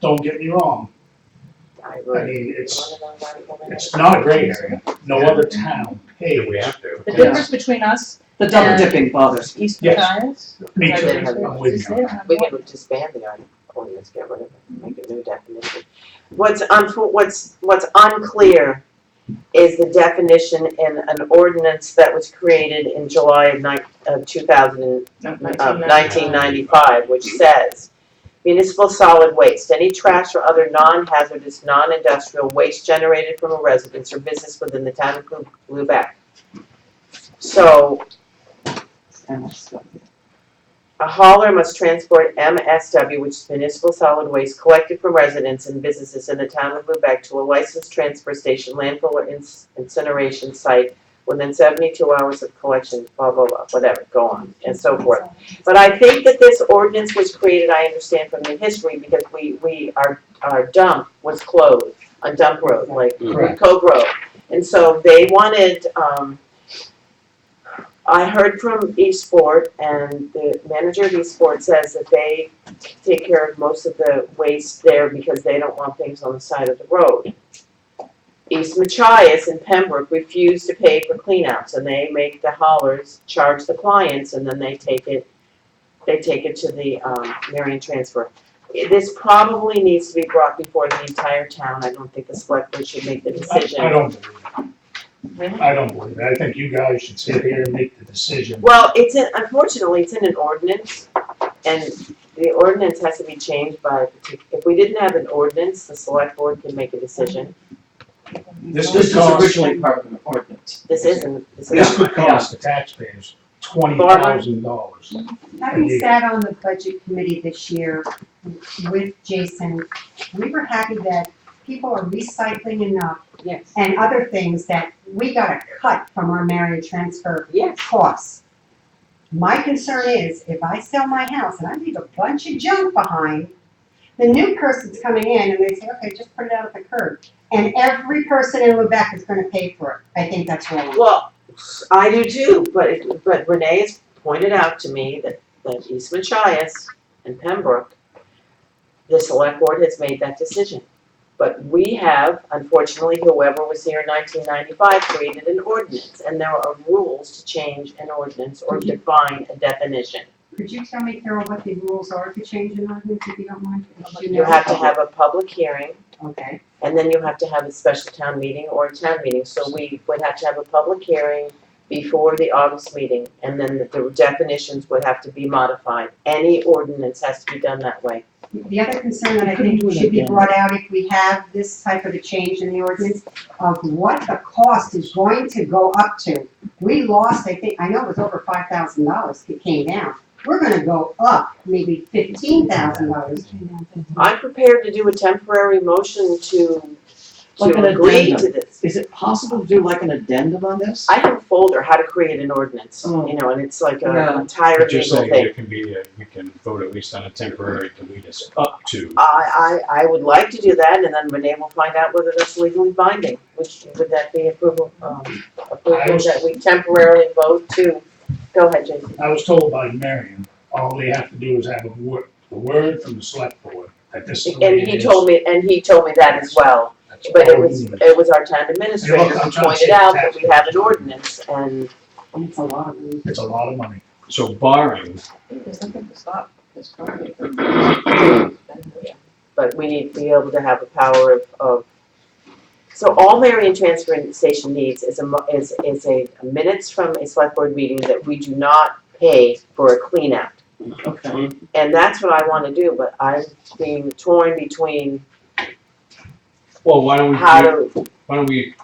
Don't get me wrong, I I agree. mean, it's, it's not a gray area, no other town If pays. we have to. The difference between us The double and dipping bothers me. Eastern Yes. Giants. Me I too, didn't I'm with you. We can disband the ord- ordinance, get rid of it, make a new definition. What's unfo- what's, what's unclear is the definition in an ordinance that was created in July of nine, of two thousand and of Um, 1995, which says, "Municipal solid waste, any trash or other non-hazardous, non-industrial waste generated from a residence or business within the town of Lu- Lubec." So a hauler must transport MSW, which is municipal solid waste collected from residents and businesses in the town of Lubec to a licensed transfer station, landfill or ins- incineration site within 72 hours of collection, blah, blah, blah, whatever, go on, and so forth. But I think that this ordinance was created, I understand from the history, because we, we, our, our dump was closed on Dump Road, like Correct. Cove Road. And so they wanted, um, I heard from Eastport and the manager of Eastport says that they take care of most of the waste there because they don't want things on the side of the road. East Machias and Pembroke refuse to pay for cleanouts and they make the haulers charge the clients and then they take it, they take it to the, um, Marion Transfer. This probably needs to be brought before the entire town. I don't think the select board should make the I decision. I don't believe it. I don't believe it. I think you guys should sit here and make the decision. Well, it's in, unfortunately, it's in an ordinance, and the ordinance has to be changed by, a partic- if we didn't have an ordinance, the select board can make a decision. This This could is cost, originally part of an ordinance. This isn't, this this is, could cost the taxpayers twenty thousand dollars. Having sat on the budget committee this year with Jason, we were happy that people are recycling enough yes, and other things that we got a cut from our marriage transfer yes, costs. My concern is if I sell my house and I leave a bunch of junk behind, the new person's coming in and they say, okay, just put it out at the curb. And every person in Lubec is gonna pay for it. I think that's wrong. well, I do too, but, it- but Renee has pointed out to me that, that East Machias and Pembroke, the select board has made that decision. But we have, unfortunately, whoever was here in nineteen ninety-five created an ordinance, and there are rules to change an ordinance or define a definition. Could you tell me, Carol, what the rules are to change an ordinance if you don't mind? If You know. have to have a public hearing, Okay. and then you have to have a special town meeting or a town meeting, so we would have to have a public hearing before the August meeting, and then the definitions would have to be modified. Any ordinance has to be done that way. The other concern that I think should be brought out if we have this type of a change in the ordinance of what the cost is going to go up to. We lost, I think, I know it was over five thousand dollars that came down. We're gonna go up maybe fifteen thousand dollars. Mm-hmm. I'm prepared to do a temporary motion to, Like an to agree to addendum. this. Is it possible to do like an addendum on this? I have a folder, how to create an ordinance, Oh. you know, and it's like a Yeah. entire Just legal saying, thing. it can be, a- we can vote at least on a temporary to lead us up to. I, I, I would like to do that, and then Renee will find out whether that's legally binding, which, would that be approval, um, approval that we temporarily vote to? Go ahead, Jason. I was told by Marion, all they have to do is have a word, a word from the select board that this is the way And it he is. told me, and he told me that as well, That's but all it we was, need. it was our town administrator You're who welcome. I'm trying to pointed save out that we taxes. have an ordinance, and It's a lot of rules. It's a lot of money. So barring, There's nothing to stop this company from. but we need to be able to have the power of, of. So all Marion Transfer Station needs is a, mo- is, is a minutes from a select board meeting that we do not pay for a clean out. Okay. And that's what I wanna do, but I'm being torn between well, why don't we, how do- to, why don't we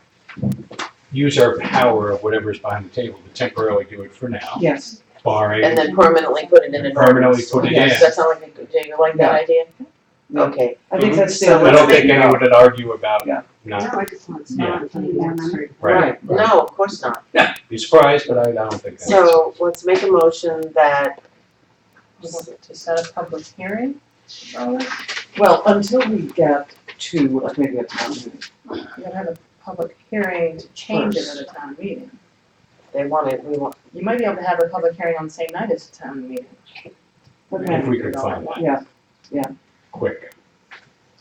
use our power of whatever's behind the table to temporarily do it for now, Yes, barring, and then permanently put it in an permanently ordinance. put it in. Does that sound like, a good- do you like that Yeah. idea? Yeah. Okay, I think that's the. So other I Mm-hmm. don't let's think anyone would argue about Yeah. not, No, I just want to smile and tell you that I'm right. right? right, no, of course not. Be surprised, but I I don't think that's. So let's make a motion that, To set a public hearing on this, Well, until we get to like maybe a town meeting. you gotta have a public hearing to change it at a town meeting. they want it, we want, You might be able to have a public hearing on the same night as a town meeting. If we could find that Yeah. quick.